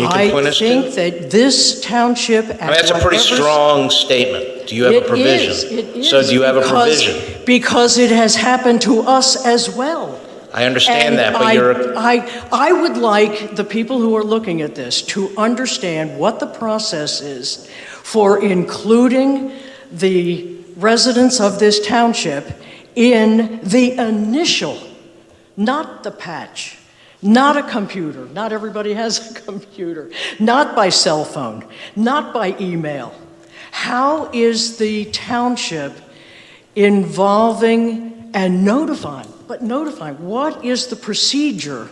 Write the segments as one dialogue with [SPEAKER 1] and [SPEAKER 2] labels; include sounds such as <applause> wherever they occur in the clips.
[SPEAKER 1] You can point
[SPEAKER 2] I
[SPEAKER 1] us to?
[SPEAKER 2] think that this township at
[SPEAKER 1] I mean, that's a pretty
[SPEAKER 2] whatever-
[SPEAKER 1] strong statement. Do you have a
[SPEAKER 2] It
[SPEAKER 1] provision?
[SPEAKER 2] is, it
[SPEAKER 1] So
[SPEAKER 2] is,
[SPEAKER 1] do you have a
[SPEAKER 2] because-
[SPEAKER 1] provision?
[SPEAKER 2] Because it has happened to us as well.
[SPEAKER 1] I understand
[SPEAKER 2] And
[SPEAKER 1] that,
[SPEAKER 2] I-
[SPEAKER 1] but you're,
[SPEAKER 2] I, I would like the people who are looking at this to understand what the process is for including the residents of this township in the initial, not the patch, not a computer, not everybody has a <laughs> computer, not by cell phone, not by email. How is the township involving and notifying, but notifying, what is the procedure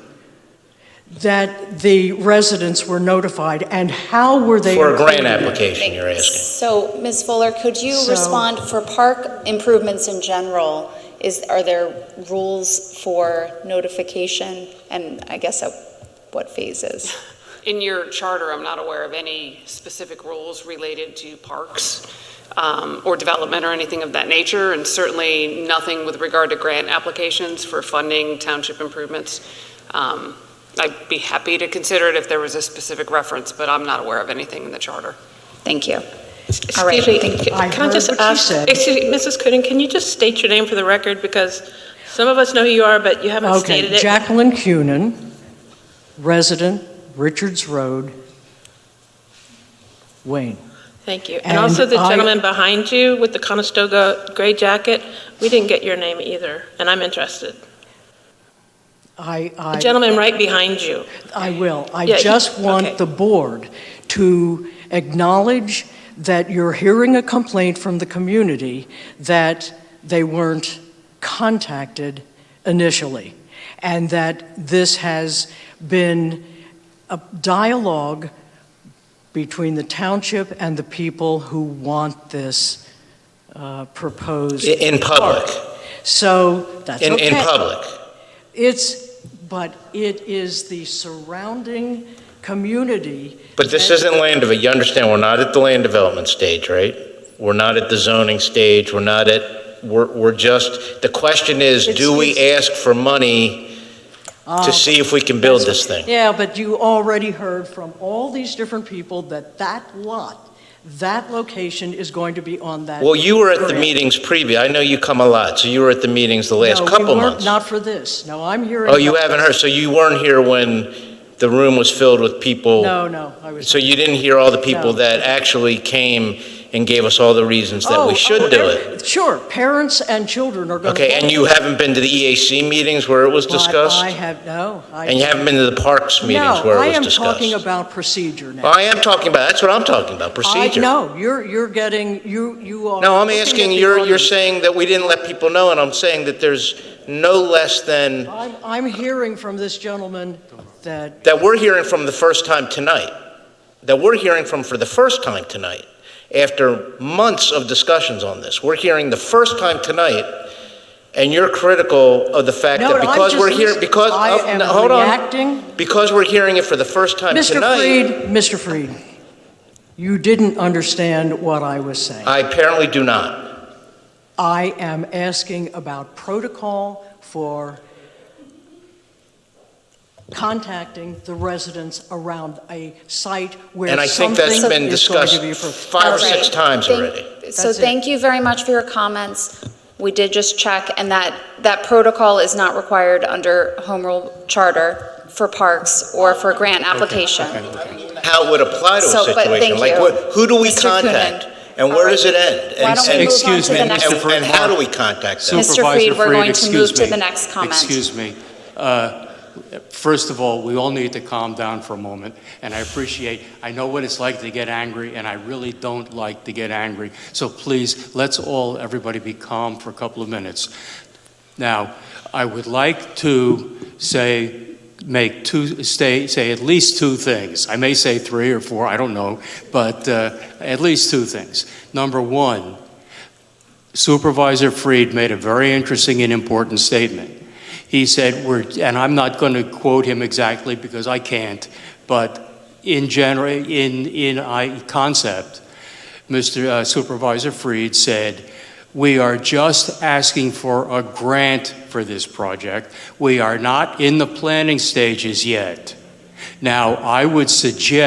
[SPEAKER 2] that the residents were notified and how were they?
[SPEAKER 1] for a grant
[SPEAKER 2] included?
[SPEAKER 1] application, you're asking.
[SPEAKER 3] So, Ms. Fuller, could you
[SPEAKER 2] So-
[SPEAKER 3] respond for park improvements in general? Is, are there rules for notification? And I guess at what phases?
[SPEAKER 4] In your charter, I'm not aware of any specific rules related to parks um, or development or anything of that nature, and certainly nothing with regard to grant applications for funding township improvements. Um, I'd be happy to consider it if there was a specific reference, but I'm not aware of anything in the charter.
[SPEAKER 3] Thank you. All right,
[SPEAKER 5] Excuse me,
[SPEAKER 3] thank
[SPEAKER 5] c-
[SPEAKER 3] you.
[SPEAKER 2] I
[SPEAKER 5] can I
[SPEAKER 2] heard
[SPEAKER 5] just
[SPEAKER 2] what you
[SPEAKER 5] ask,
[SPEAKER 2] said.
[SPEAKER 5] excuse me, Mrs. Coonan, can you just state your name for the record? Because some of us know who you are, but you haven't stated
[SPEAKER 2] Okay,
[SPEAKER 5] it.
[SPEAKER 2] Jacqueline Cunin, resident, Richards Road, Wayne.
[SPEAKER 5] Thank you. And
[SPEAKER 2] and
[SPEAKER 5] also the
[SPEAKER 2] I-
[SPEAKER 5] gentleman behind you with the Conestoga gray jacket, we didn't get your name either, and I'm interested.
[SPEAKER 2] I,
[SPEAKER 5] The
[SPEAKER 2] I,
[SPEAKER 5] gentleman right behind you.
[SPEAKER 2] I will. I
[SPEAKER 5] Yeah, you-
[SPEAKER 2] just
[SPEAKER 5] okay.
[SPEAKER 2] want the board to acknowledge that you're hearing a complaint from the community that they weren't contacted initially, and that this has been a dialogue between the township and the people who want this uh, proposed.
[SPEAKER 1] I- In public,
[SPEAKER 2] So that's
[SPEAKER 1] in,
[SPEAKER 2] okay.
[SPEAKER 1] in public.
[SPEAKER 2] It's, but it is the surrounding community.
[SPEAKER 1] But this isn't land development, you understand, we're not at the land development stage, right? We're not at the zoning stage, we're not at, we're, we're just, the question is,
[SPEAKER 2] It's-
[SPEAKER 1] do we ask for money
[SPEAKER 2] Uh,
[SPEAKER 1] to see if we can build this thing?
[SPEAKER 2] Yeah, but you already heard from all these different people that that lot, that location is going to be on that.
[SPEAKER 1] Well, you were at the
[SPEAKER 2] grant.
[SPEAKER 1] meetings previous, I know you come a lot, so you were at the meetings the last
[SPEAKER 2] No, we
[SPEAKER 1] couple
[SPEAKER 2] weren't-
[SPEAKER 1] months.
[SPEAKER 2] Not for this. No, I'm here. in-
[SPEAKER 1] Oh, you haven't heard, so you weren't here when the room was filled with people?
[SPEAKER 2] No, no, I was.
[SPEAKER 1] So you didn't hear all the people
[SPEAKER 2] No.
[SPEAKER 1] that actually came and gave us all the reasons that
[SPEAKER 2] Oh,
[SPEAKER 1] we
[SPEAKER 2] oh,
[SPEAKER 1] should do it?
[SPEAKER 2] there- Sure, parents and children are going to.
[SPEAKER 1] Okay, and you haven't been to the EAC meetings where it was
[SPEAKER 2] I
[SPEAKER 1] discussed?
[SPEAKER 2] have, no. I-
[SPEAKER 1] And you haven't been to the parks meetings where it was discussed?
[SPEAKER 2] No, I am talking about procedure now.
[SPEAKER 1] Well, I am talking about, that's what I'm talking about,
[SPEAKER 2] I,
[SPEAKER 1] procedure.
[SPEAKER 2] no, you're, you're getting, you, you are.
[SPEAKER 1] No, I'm
[SPEAKER 2] looking at
[SPEAKER 1] asking,
[SPEAKER 2] the
[SPEAKER 1] you're, you're
[SPEAKER 2] audience.
[SPEAKER 1] saying that we didn't let people know, and I'm saying that there's no less than,
[SPEAKER 2] I'm, I'm hearing from this gentleman that,
[SPEAKER 1] that we're hearing from the first time tonight, that we're hearing from for the first time tonight, after months of discussions on this. We're hearing the first time tonight, and you're critical of the fact
[SPEAKER 2] no,
[SPEAKER 1] that
[SPEAKER 2] no, I'm
[SPEAKER 1] because we're here,
[SPEAKER 2] just,
[SPEAKER 1] because,
[SPEAKER 2] I
[SPEAKER 1] oh,
[SPEAKER 2] am
[SPEAKER 1] no, hold on.
[SPEAKER 2] reacting.
[SPEAKER 1] Because we're hearing it for the first time
[SPEAKER 2] Mr.
[SPEAKER 1] tonight,
[SPEAKER 2] Freed, Mr. Freed, you didn't understand what I was saying.
[SPEAKER 1] I apparently do not.
[SPEAKER 2] I am asking about protocol for contacting the residents around a site
[SPEAKER 1] And
[SPEAKER 2] where
[SPEAKER 1] I think
[SPEAKER 2] something
[SPEAKER 1] that's been
[SPEAKER 2] is going
[SPEAKER 1] discussed
[SPEAKER 2] to be approved.
[SPEAKER 1] five or
[SPEAKER 3] All
[SPEAKER 1] six
[SPEAKER 3] right.
[SPEAKER 1] times
[SPEAKER 3] Thank-
[SPEAKER 1] already.
[SPEAKER 3] So
[SPEAKER 2] That's it.
[SPEAKER 3] thank you very much for your comments. We did just check, and that, that protocol is not required under Home Rule Charter for parks or for grant application.
[SPEAKER 1] How it would apply to a
[SPEAKER 3] So, but
[SPEAKER 1] situation,
[SPEAKER 3] thank
[SPEAKER 1] like,
[SPEAKER 3] you.
[SPEAKER 1] what- who do we
[SPEAKER 3] Mr. Coonan.
[SPEAKER 1] contact? And where does it end?
[SPEAKER 3] Why
[SPEAKER 1] And-
[SPEAKER 3] don't we
[SPEAKER 1] and-
[SPEAKER 3] move on
[SPEAKER 6] Excuse
[SPEAKER 3] to
[SPEAKER 6] me,
[SPEAKER 3] the
[SPEAKER 6] Mr.
[SPEAKER 3] next?
[SPEAKER 1] And
[SPEAKER 6] Friedman.
[SPEAKER 1] and how do we contact them?
[SPEAKER 3] Mr.
[SPEAKER 6] Supervisor
[SPEAKER 3] Freed, we're going to
[SPEAKER 6] excuse
[SPEAKER 3] move to
[SPEAKER 6] me.
[SPEAKER 3] the next comment.
[SPEAKER 6] Excuse me. Uh, First of all, we all need to calm down for a moment, and I appreciate, I know what it's like to get angry, and I really don't like to get angry. So please, let's all, everybody be calm for a couple of minutes. Now, I would like to say, make two, stay, say at least two things. I may say three or four, I don't know, but uh, at least two things. Number one, Supervisor Freed made a very interesting and important statement. He said, we're, and I'm not going to quote him exactly because I can't, but in general, in, in I, concept, Mr. uh, Supervisor Freed said, we are just asking for a grant for this project. We are not in the planning stages yet. Now, I would suggest.